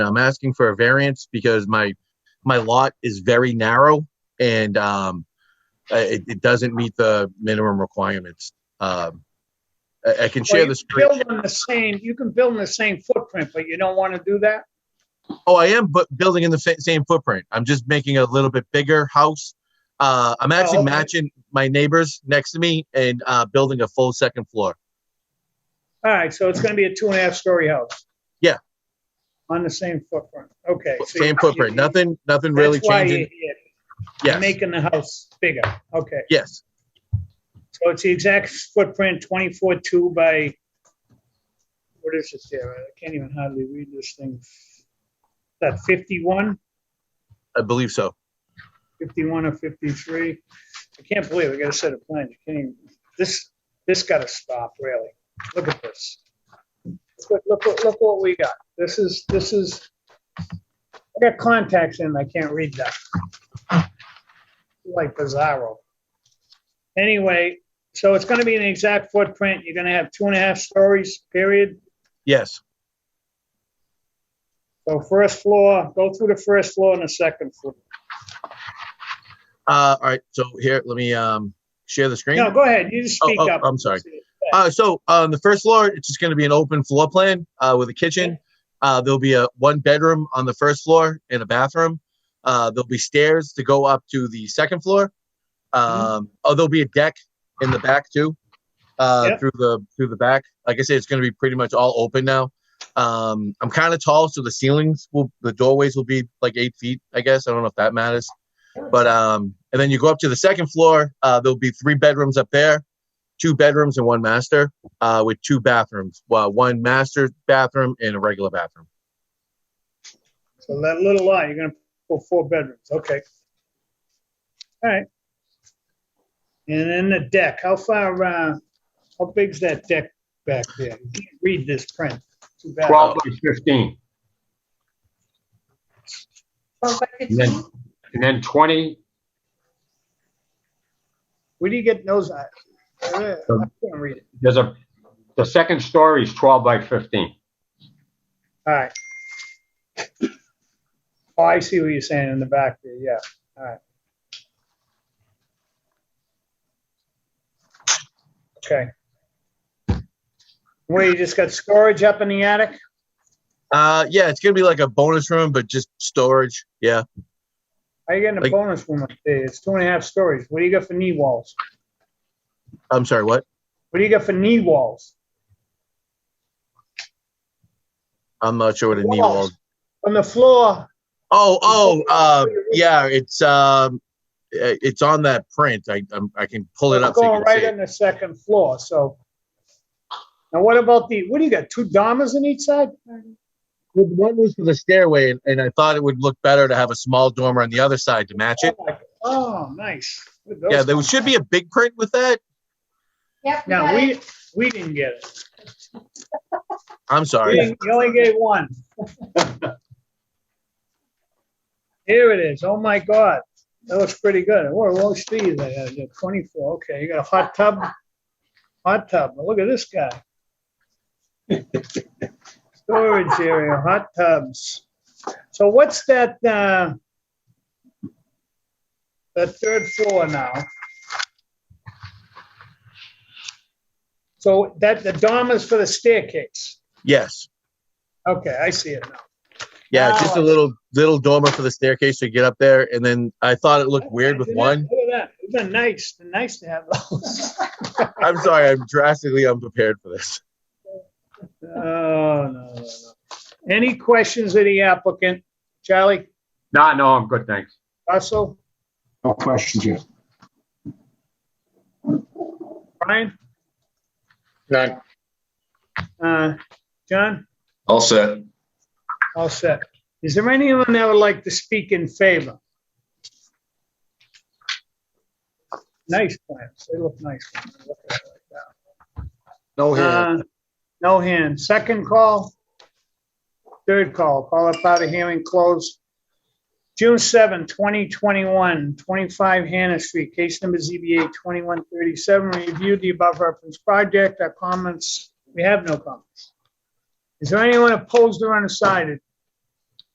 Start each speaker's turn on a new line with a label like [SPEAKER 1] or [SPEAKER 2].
[SPEAKER 1] I'm asking for a variance because my, my lot is very narrow and, um, uh, it, it doesn't meet the minimum requirements. Um, I, I can share
[SPEAKER 2] Well,
[SPEAKER 1] the
[SPEAKER 2] you
[SPEAKER 1] screen.
[SPEAKER 2] Build on the same, you can build in the same footprint, but you don't want to do that?
[SPEAKER 1] Oh, I am, but building in the fa- same footprint. I'm just making a little bit bigger house. Uh, I'm actually
[SPEAKER 2] Oh, okay.
[SPEAKER 1] matching my neighbors next to me and uh, building a full second floor.
[SPEAKER 2] All right, so it's going to be a two and a half story house?
[SPEAKER 1] Yeah.
[SPEAKER 2] On the same footprint, okay. so you-
[SPEAKER 1] Same footprint. Nothing, nothing really
[SPEAKER 2] That's why
[SPEAKER 1] changing.
[SPEAKER 2] you- You're
[SPEAKER 1] Yes,
[SPEAKER 2] making the house bigger, okay.
[SPEAKER 1] yes,
[SPEAKER 2] So it's the exact footprint, 24-2 by, what is it there? I can't even hardly read this thing. Is That 51,
[SPEAKER 1] I believe so.
[SPEAKER 2] 51 or 53? I can't believe, I got a set of plans, you can't even, this, this got to stop, really. Look at this. Look, look, look- look what we got. This is, this is, I got contacts in, I can't read that. Like bizarro. Anyway, so it's gonna be an exact footprint. You're gonna have two and a half stories, period.
[SPEAKER 1] Yes,
[SPEAKER 2] So first floor, go through the first floor and the second floor.
[SPEAKER 1] Uh, all right, so here, let me um, share the screen.
[SPEAKER 2] No, go ahead, you just
[SPEAKER 1] Oh,
[SPEAKER 2] speak
[SPEAKER 1] oh,
[SPEAKER 2] up.
[SPEAKER 1] I'm sorry. Uh, so on the first floor, it's just going to be an open floor plan uh, with a kitchen. Uh, there'll be a one bedroom on the first floor and a bathroom. Uh, there'll be stairs to go up to the second floor. Um, Oh, there'll be a deck in the back too, uh,
[SPEAKER 2] Yep.
[SPEAKER 1] through the through the back. Like I said, it's going to be pretty much all open now. Um, I'm kind of tall, so the ceilings will, the doorways will be like eight feet. I guess I don't know if that matters, but um, and then you go up to the second floor. Uh, there'll be three bedrooms up there, two bedrooms and one master uh, with two bathrooms. Well, one master bathroom and a regular bathroom.
[SPEAKER 2] So that little lot, you're gonna put four bedrooms, okay. All right. And then the deck, how far, uh, how big's that deck back there? You can't Read this print. Too bad.
[SPEAKER 3] 12 by 15,
[SPEAKER 4] Well, but
[SPEAKER 3] and then,
[SPEAKER 4] it's-
[SPEAKER 3] and then 20,
[SPEAKER 2] Where do you get those? I I can't read it.
[SPEAKER 3] there's a, the second story is 12 by 15.
[SPEAKER 2] All right. Oh, I see what you're saying in the back there, yeah, all right. Okay. Where you just got storage up in the attic?
[SPEAKER 1] Uh, yeah, it's gonna be like a bonus room, but just storage. Yeah,
[SPEAKER 2] How you getting a
[SPEAKER 1] Like-
[SPEAKER 2] bonus room up there? It's two and a half stories. What do you got for knee walls?
[SPEAKER 1] I'm sorry, what?
[SPEAKER 2] What do you got for knee walls?
[SPEAKER 1] I'm not sure what a knee wall.
[SPEAKER 2] Walls. From the floor,
[SPEAKER 1] Oh, oh, uh, yeah, it's um, uh, it's on that print. I I'm, I can pull it
[SPEAKER 2] we're
[SPEAKER 1] up so
[SPEAKER 2] going
[SPEAKER 1] you can
[SPEAKER 2] right
[SPEAKER 1] see. It.
[SPEAKER 2] on the second floor, so. Now, what about the, what do you got, two dormers on each side?
[SPEAKER 1] Well, One was for the stairway, and, and I thought it would look better to have a small dormer on the other side to match it.
[SPEAKER 2] Oh, nice. Look at those
[SPEAKER 1] Yeah, there
[SPEAKER 2] guys.
[SPEAKER 1] should be a big print with that.
[SPEAKER 4] Yep. we
[SPEAKER 2] Now,
[SPEAKER 4] got
[SPEAKER 2] we,
[SPEAKER 4] it.
[SPEAKER 2] we didn't get it.
[SPEAKER 1] I'm
[SPEAKER 2] We
[SPEAKER 1] sorry.
[SPEAKER 2] didn't- You only gave one. Here it is. Oh, my God. That looks pretty good. What, what speed is that? Twenty-four. Okay, you got a hot tub? Hot tub. Look at this guy. Storage area, hot tubs. So what's that, uh, the third floor now? So that, the dormers for the staircase.
[SPEAKER 1] Yes.
[SPEAKER 2] Okay, I see it now.
[SPEAKER 1] Yeah,
[SPEAKER 2] Wow.
[SPEAKER 1] just a little little dormer for the staircase to get up there, and then I thought it looked weird with
[SPEAKER 2] Look at
[SPEAKER 1] one.
[SPEAKER 2] that, Look at that. It's been nice, been nice to have those.
[SPEAKER 1] I'm sorry, I'm drastically unprepared for this.
[SPEAKER 2] Oh, no, no, no. Any questions of the applicant? Charlie,
[SPEAKER 3] No, no, I'm good, thanks.
[SPEAKER 2] Russell,
[SPEAKER 5] No questions yet.
[SPEAKER 2] Brian,
[SPEAKER 5] None.
[SPEAKER 2] uh, John?
[SPEAKER 6] All set.
[SPEAKER 2] All set. Is there anyone that would like to speak in favor? Nice plants. They look nice. when you look at it like
[SPEAKER 5] No
[SPEAKER 2] that. Uh, No hand. Second call. Third call. Call up out of hearing closed. June 7, 2021, 25 Hannah Street, case number ZBA 2137. Reviewed the above referenced project. Our comments, we have no comments. Is there anyone opposed or undecided?